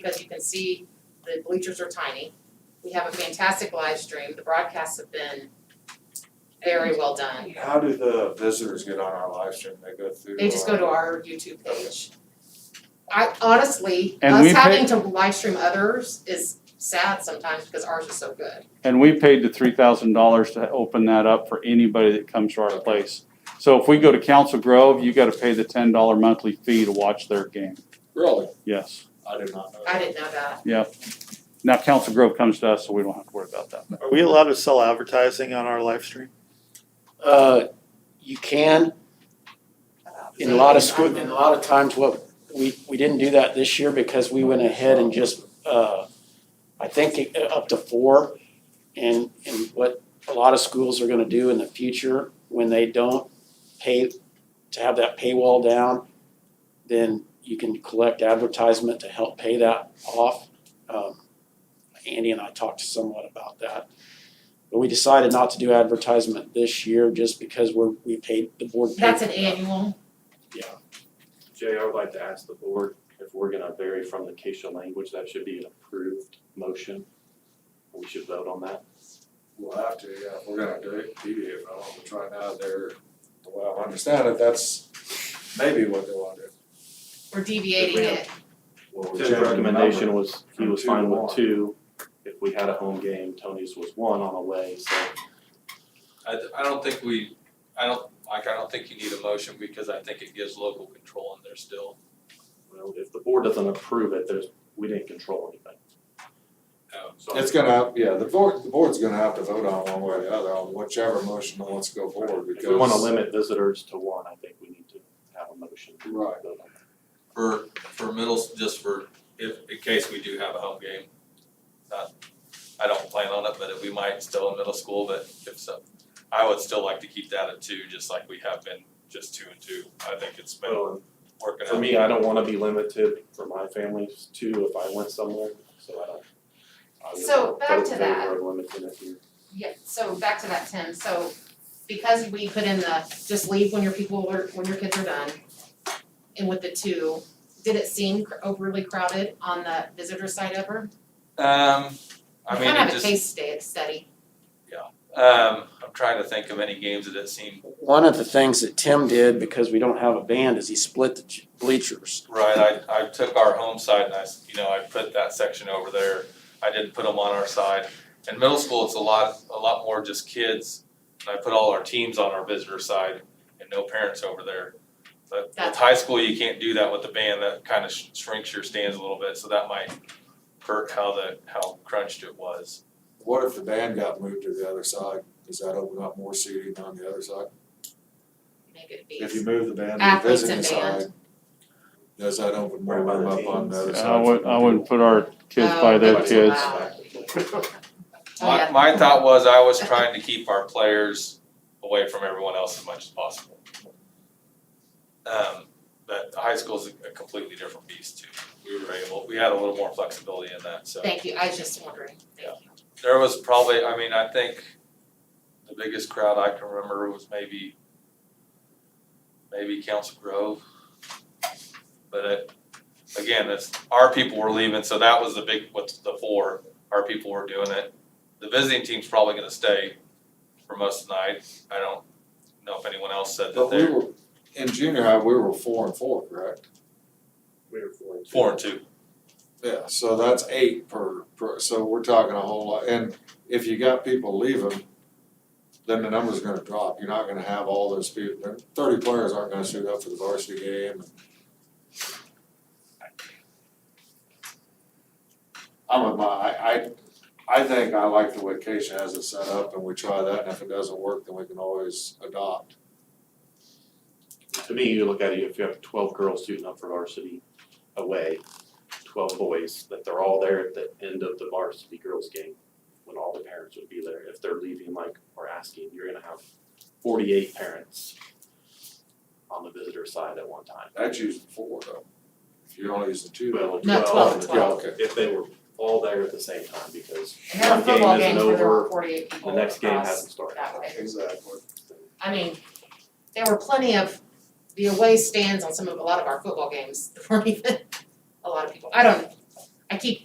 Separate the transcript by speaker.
Speaker 1: because you can see the bleachers are tiny. We have a fantastic live stream, the broadcasts have been very well done.
Speaker 2: How do the visitors get on our live stream? They go through
Speaker 1: They just go to our YouTube page. I honestly,
Speaker 3: And
Speaker 1: us
Speaker 3: we pay-
Speaker 1: having to live stream others is sad sometimes because ours is so good.
Speaker 3: And we paid the three thousand dollars to open that up for anybody that comes to our place. So if we go to Council Grove, you gotta pay the ten dollar monthly fee to watch their game,
Speaker 2: Really?
Speaker 3: yes.
Speaker 2: I did not know
Speaker 1: I
Speaker 2: that.
Speaker 1: didn't know that.
Speaker 3: Now Council Grove comes to us, so we don't have to worry about that.
Speaker 4: Are we allowed to sell advertising on our live stream?
Speaker 5: Uh, you can, in a lot of school, in a lot of times, what, we, we didn't do that this year because we went ahead and just, uh, I think it- uh, up to four. And, and what a lot of schools are gonna do in the future, when they don't pay, to have that paywall down, then you can collect advertisement to help pay that off. Um, Andy and I talked somewhat about that. But we decided not to do advertisement this year just because we're, we paid, the board paid.
Speaker 1: That's an annual,
Speaker 6: Jay, I would like to ask the board if we're gonna vary from the Keisha language, that should be an approved motion. We should vote on that.
Speaker 2: We'll have to, yeah, if we're gonna do deviate from it, which right now they're, the way I understand it, that's maybe what they want to do.
Speaker 1: we're deviating
Speaker 6: If we have-
Speaker 1: it.
Speaker 2: Well, we're
Speaker 6: Tim's
Speaker 2: changing the
Speaker 6: recommendation
Speaker 2: number.
Speaker 6: was, he was fine with two. If we had a home game, Tony's was one on away, so
Speaker 7: I, I don't think we, I don't, like, I don't think you need a motion because I think it gives local control in there still.
Speaker 6: well, if the board doesn't approve it, there's, we didn't control anything.
Speaker 7: Um,
Speaker 6: So
Speaker 2: It's gonna, yeah, the board, the board's gonna have to vote on one way or the other, on whichever motion that wants to go forward, because.
Speaker 6: If we wanna limit visitors to one, I think we need to have a motion. to
Speaker 2: Right.
Speaker 6: vote on that.
Speaker 7: For, for middle, just for, if, in case we do have a home game. Not, I don't plan on it, but we might still in middle school, but if so, I would still like to keep that at two, just like we have been, just two and two. I think it's been
Speaker 6: Well,
Speaker 7: working out.
Speaker 6: For me, I don't wanna be limited for my family too if I went somewhere, so I don't. I would
Speaker 1: So, back
Speaker 6: vote
Speaker 1: to
Speaker 6: in
Speaker 1: that.
Speaker 6: favor of limiting it here.
Speaker 1: Yeah, so back to that, Tim, so because we put in the, just leave when your people are, when your kids are done, and with the two, did it seem cr- overly crowded on the visitor side ever?
Speaker 7: Um, I
Speaker 1: We
Speaker 7: mean,
Speaker 1: kind of
Speaker 7: it
Speaker 1: have a
Speaker 7: just,
Speaker 1: case sta- study,
Speaker 7: um, I'm trying to think of any games that it seemed,
Speaker 5: One of the things that Tim did, because we don't have a band, is he split the ch- bleachers.
Speaker 7: right, I, I took our home side and I, s- you know, I put that section over there. I didn't put them on our side. In middle school, it's a lot, a lot more just kids. And I put all our teams on our visitor side and no parents over there. But with
Speaker 1: That's-
Speaker 7: high school, you can't do that with the band. That kind of shrinks your stands a little bit, so that might hurt how the, how crunched it was.
Speaker 2: What if the band got moved to the other side, does that open up more seating on the other side?
Speaker 1: make it
Speaker 2: If you
Speaker 1: be,
Speaker 2: move the band to the
Speaker 1: Athletes and
Speaker 2: visiting
Speaker 1: band.
Speaker 2: side, does that open more
Speaker 6: Right by
Speaker 2: room
Speaker 6: the
Speaker 2: up on the other
Speaker 6: teams.
Speaker 2: side?
Speaker 3: I would, I wouldn't put our kids
Speaker 1: Oh,
Speaker 3: by their
Speaker 1: that's
Speaker 3: kids.
Speaker 1: allowed. Oh,
Speaker 7: My,
Speaker 1: yeah.
Speaker 7: my thought was I was trying to keep our players away from everyone else as much as possible. Um, but high school's a a completely different beast too. We were able, we had a little more flexibility in that, so.
Speaker 1: thank you, I was just wondering, thank you.
Speaker 7: There was probably, I mean, I think the biggest crowd I can remember was maybe, maybe Council Grove. But it, again, it's, our people were leaving, so that was the big, what's the four, our people were doing it. The visiting team's probably gonna stay for most of the night. I don't know if anyone else said that
Speaker 2: But we
Speaker 7: they're
Speaker 2: were, in junior high, we were four and four, correct?
Speaker 6: We were four and two.
Speaker 7: four and two.
Speaker 2: Yeah, so that's eight per, per, so we're talking a whole lot, and if you got people leaving, then the number's gonna drop, you're not gonna have all those people, thirty players aren't gonna shoot up for the varsity game. I'm with my, I, I, I think I like the way Keisha has it set up, and we try that, and if it doesn't work, then we can always adopt.
Speaker 6: To me, you look at it, if you have twelve girls shooting up for varsity away, twelve boys, that they're all there at the end of the varsity girls game. When all the parents would be there, if they're leaving like or asking, you're gonna have forty-eight parents on the visitor side at one time.
Speaker 2: That's usually four though, if you don't use the two.
Speaker 6: Well, twelve.
Speaker 1: No, 12,
Speaker 6: yeah,
Speaker 1: 12.
Speaker 6: okay. If they were all there at the same time, because
Speaker 1: And there were
Speaker 6: One game
Speaker 1: football
Speaker 6: isn't
Speaker 1: games where there were
Speaker 6: over,
Speaker 1: forty-eight people
Speaker 6: the next game
Speaker 1: across
Speaker 6: hasn't started.
Speaker 1: Oh, that way.
Speaker 2: Exactly.
Speaker 1: I mean, there were plenty of the away stands on some of, a lot of our football games, there weren't even a lot of people, I don't, I keep